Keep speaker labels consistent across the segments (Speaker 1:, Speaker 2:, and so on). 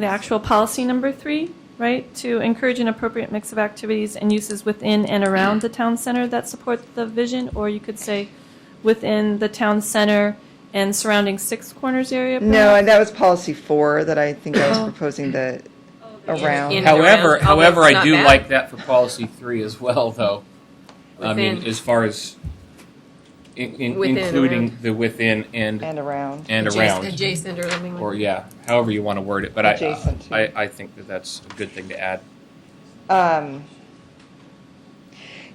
Speaker 1: The actual policy number three, right? To encourage an appropriate mix of activities and uses within and around the town center that support the vision, or you could say within the town center and surrounding Six Corners area?
Speaker 2: No, and that was policy four that I think I was proposing to around.
Speaker 3: In- and
Speaker 4: However,
Speaker 3: around. Oh,
Speaker 4: however,
Speaker 3: that's
Speaker 4: I
Speaker 3: not
Speaker 4: do
Speaker 3: bad.
Speaker 4: like that for policy three as well, though. I mean,
Speaker 3: Within.
Speaker 4: as far as in, in,
Speaker 3: Within,
Speaker 4: including
Speaker 3: around.
Speaker 4: the within and and,
Speaker 2: And around.
Speaker 4: around,
Speaker 3: Adjacent or something
Speaker 4: or
Speaker 3: like
Speaker 4: yeah, however you want to word it. But
Speaker 2: Adjacent to.
Speaker 4: I, I, I think that that's a good thing to add.
Speaker 2: Um,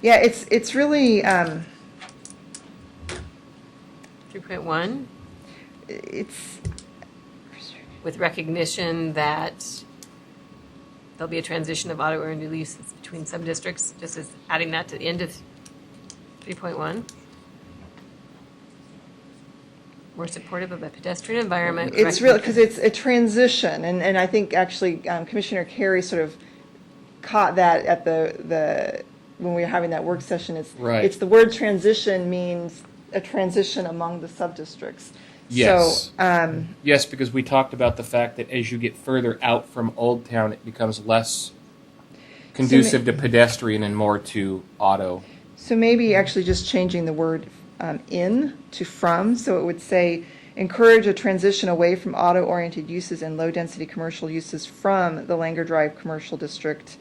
Speaker 2: yeah, it's, it's really, um,
Speaker 3: Three point one,
Speaker 2: it's,
Speaker 3: with recognition that there'll be a transition of auto earned leases between some districts, just as adding that to the end of three point one. We're supportive of a pedestrian environment. with
Speaker 2: it's really,
Speaker 3: recognition-
Speaker 2: because it's a transition, and, and I think actually um, Commissioner Carey sort of caught that at the, the, when we were having that work session, it's,
Speaker 4: Right.
Speaker 2: it's the word transition means a transition among the sub-districts.
Speaker 4: Yes.
Speaker 2: So, um,
Speaker 4: Yes, because we talked about the fact that as you get further out from Old Town, it becomes less conducive to pedestrian and more to auto.
Speaker 2: So maybe actually just changing the word um, in to from, so it would say, encourage a transition away from auto-oriented uses and low-density commercial uses from the Langer Drive Commercial District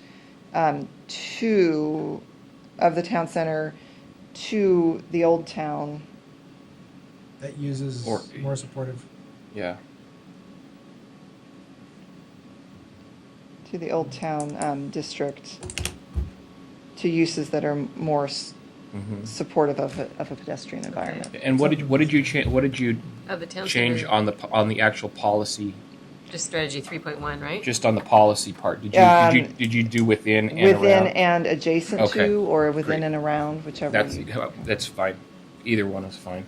Speaker 2: um, to, of the town center, to the old town.
Speaker 5: that uses
Speaker 4: Or-
Speaker 5: more supportive.
Speaker 4: Yeah.
Speaker 2: to the Old Town um, District to uses that are more s- supportive of a, of a pedestrian environment.
Speaker 4: Mm-hmm. And what did what did you change? What did you
Speaker 3: Of the town
Speaker 4: change
Speaker 3: center,
Speaker 4: on the on the actual policy
Speaker 3: just strategy three point one, right?
Speaker 4: just on the policy part, did you, did,
Speaker 2: Um,
Speaker 4: you did you do within and
Speaker 2: Within
Speaker 4: around?
Speaker 2: and adjacent
Speaker 4: Okay.
Speaker 2: to, or within
Speaker 4: Great.
Speaker 2: and around, whichever
Speaker 4: that's
Speaker 2: you.
Speaker 4: that's fine. Either one is fine.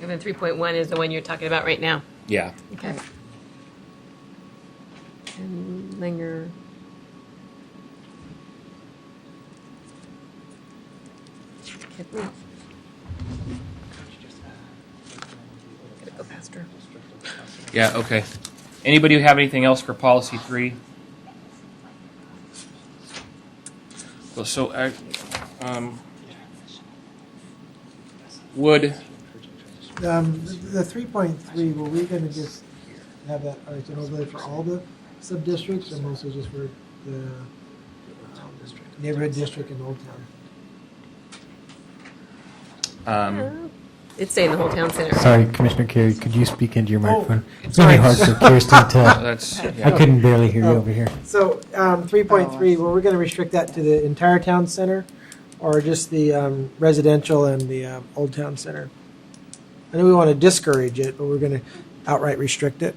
Speaker 3: And then three point one is the one you're talking about right now.
Speaker 4: Yeah.
Speaker 3: Okay. And linger. Can't read. Gotta go faster.
Speaker 4: Yeah. Okay. Anybody who have anything else for policy three? Well, so I, um, would
Speaker 5: Um, the- the three point three, were we gonna just have that as an overlay for all the sub-districts or mostly just for the um, neighborhood district and Old Town?
Speaker 4: um,
Speaker 3: It's saying the whole town center.
Speaker 6: Sorry, Commissioner Carey, could you speak into your microphone? It's
Speaker 5: all
Speaker 6: really
Speaker 5: right.
Speaker 6: hard for Kirsten to,
Speaker 4: that's
Speaker 6: I
Speaker 4: yeah.
Speaker 6: couldn't barely hear you over here.
Speaker 5: So, um, three point three, were we gonna restrict that to the entire town center or just the, um, residential and the, um, Old Town Center? I know we wanna discourage it, but we're gonna outright restrict it,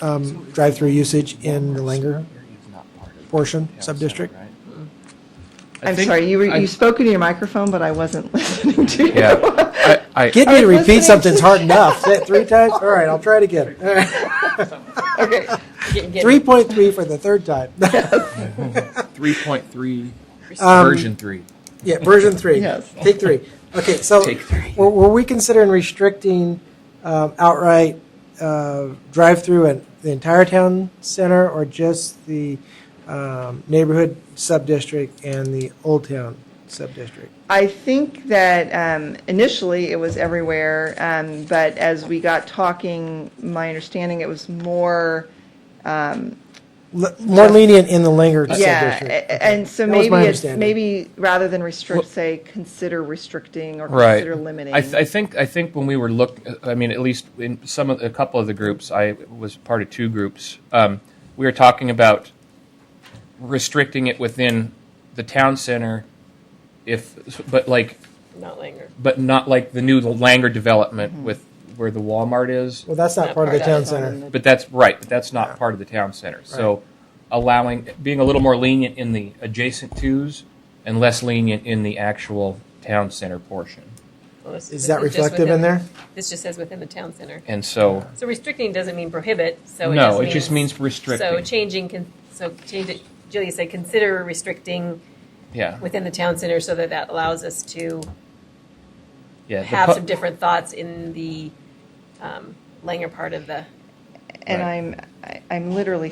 Speaker 5: um, drive-through usage in the Langer portion, sub-district.
Speaker 4: I
Speaker 2: I'm
Speaker 4: think-
Speaker 2: sorry, you were,
Speaker 4: I-
Speaker 2: you spoke into your microphone, but I wasn't listening to you.
Speaker 4: Yeah. I, I,
Speaker 5: Get me to
Speaker 2: was listening.
Speaker 5: repeat something's hard enough. Say it three times? All right, I'll try it again. All right.
Speaker 2: Okay,
Speaker 3: Get- get-
Speaker 5: 3.3 for the third time.
Speaker 4: three point three
Speaker 5: Um,
Speaker 4: version three.
Speaker 5: Yeah, version three.
Speaker 2: Yes.
Speaker 5: Take three. Okay, so
Speaker 4: Take three.
Speaker 5: Were, were we considering restricting um, outright uh, drive-through in the entire town center or just the um, neighborhood sub-district and the old town sub-district?
Speaker 2: I think that um, initially it was everywhere, um, but as we got talking, my understanding it was more,
Speaker 5: L- more lenient in the Langer
Speaker 2: yeah, a-
Speaker 5: sub-district.
Speaker 2: a- and so
Speaker 5: That was
Speaker 2: maybe
Speaker 5: my
Speaker 2: it's,
Speaker 5: understanding.
Speaker 2: maybe rather than restrict, say, consider restricting or
Speaker 4: right.
Speaker 2: consider limiting.
Speaker 4: I, th- I think I think when we were look, I mean, at least in some of a couple of the groups, I was part of two groups. Um, we were talking about restricting it within the town center, if but like
Speaker 3: Not linger.
Speaker 4: but not like the new Langer development with where the Walmart is.
Speaker 5: Well, that's not
Speaker 3: Not
Speaker 5: part of the
Speaker 3: part of
Speaker 5: town
Speaker 3: it.
Speaker 5: center.
Speaker 4: But that's right. But that's not part of the town center. So allowing being a little more lenient in the adjacent twos and less lenient in the actual town center portion.
Speaker 3: Well, this this
Speaker 5: Is that
Speaker 3: just
Speaker 5: reflective in
Speaker 3: within-
Speaker 5: there?
Speaker 3: This just says within the town center.
Speaker 4: And so.
Speaker 3: So restricting doesn't mean prohibit, so it
Speaker 4: No,
Speaker 3: just means.
Speaker 4: it just means restricting.
Speaker 3: So changing, con- so change it, Julia said, consider restricting
Speaker 4: yeah,
Speaker 3: within the town center so that that allows us to
Speaker 4: yeah. the
Speaker 3: have
Speaker 4: pu-
Speaker 3: some different thoughts in the um, Langer part of the
Speaker 2: And
Speaker 4: Right.
Speaker 2: I'm, I- I'm literally